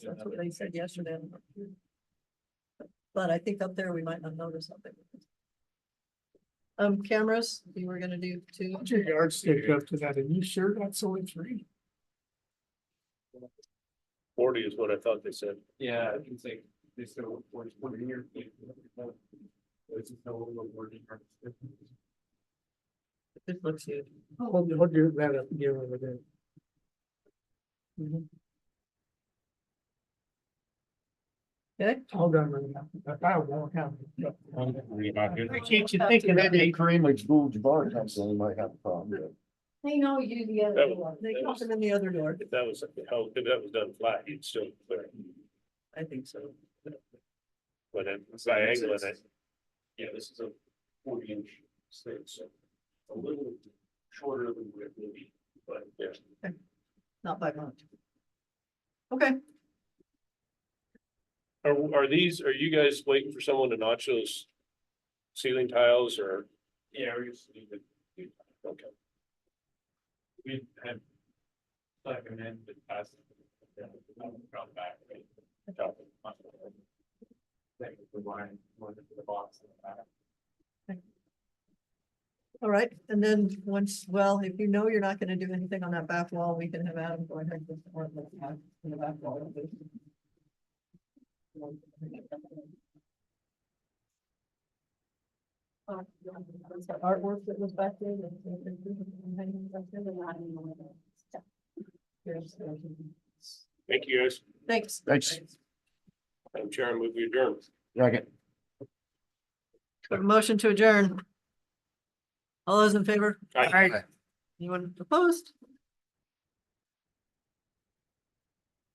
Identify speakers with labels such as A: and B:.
A: That's what they said yesterday. But I think up there we might not notice something. Um, cameras, you were gonna do two.
B: Put your yardstick up to that, and you sure that's only three?
C: Forty is what I thought they said.
D: Yeah, I can say they still work one year. There's no award.
A: It looks huge.
B: Hold, hold your, that up again over there.
A: Mm-hmm. Okay.
B: Hold on, right now, but I won't have. it.
C: Why
B: Why can't you think of that?
E: Maybe Kareem Abdul-Jabbar comes in, he might have a problem with it.
A: They know you do the
C: That
A: other
C: was-
A: one. They
C: that
A: caught
C: was-
A: them in the other door.
C: If that was, how, if that was done flat, you'd still clear, it.
A: I think so.
C: but if it's diagonal, it.
D: Yeah, this is a forty inch stick, so a little shorter than what it would be, but yeah.
A: Not by much. Okay,
C: Are, are these, are you guys waiting for someone to notch those ceiling tiles or?
D: Yeah, we just need to. Okay. We had. Like an end that passed. Drop back. right? Drop it. Like the line, one into the box in the back.
A: all right. And then once, well, if you know you're not gonna do anything on that back wall, we can have Adam go ahead with. the work that's on the back wall. Uh, was the Artwork that was back there. that- that- that- that- hanging back there, they're not anymore. Here's- here's-
C: Thank you guys.
A: Thanks.
E: Thanks.
C: I'm chair, I move your adjourn.
E: Second.
A: Motion to adjourn. All those in favor?
C: Aye.
A: Anyone opposed?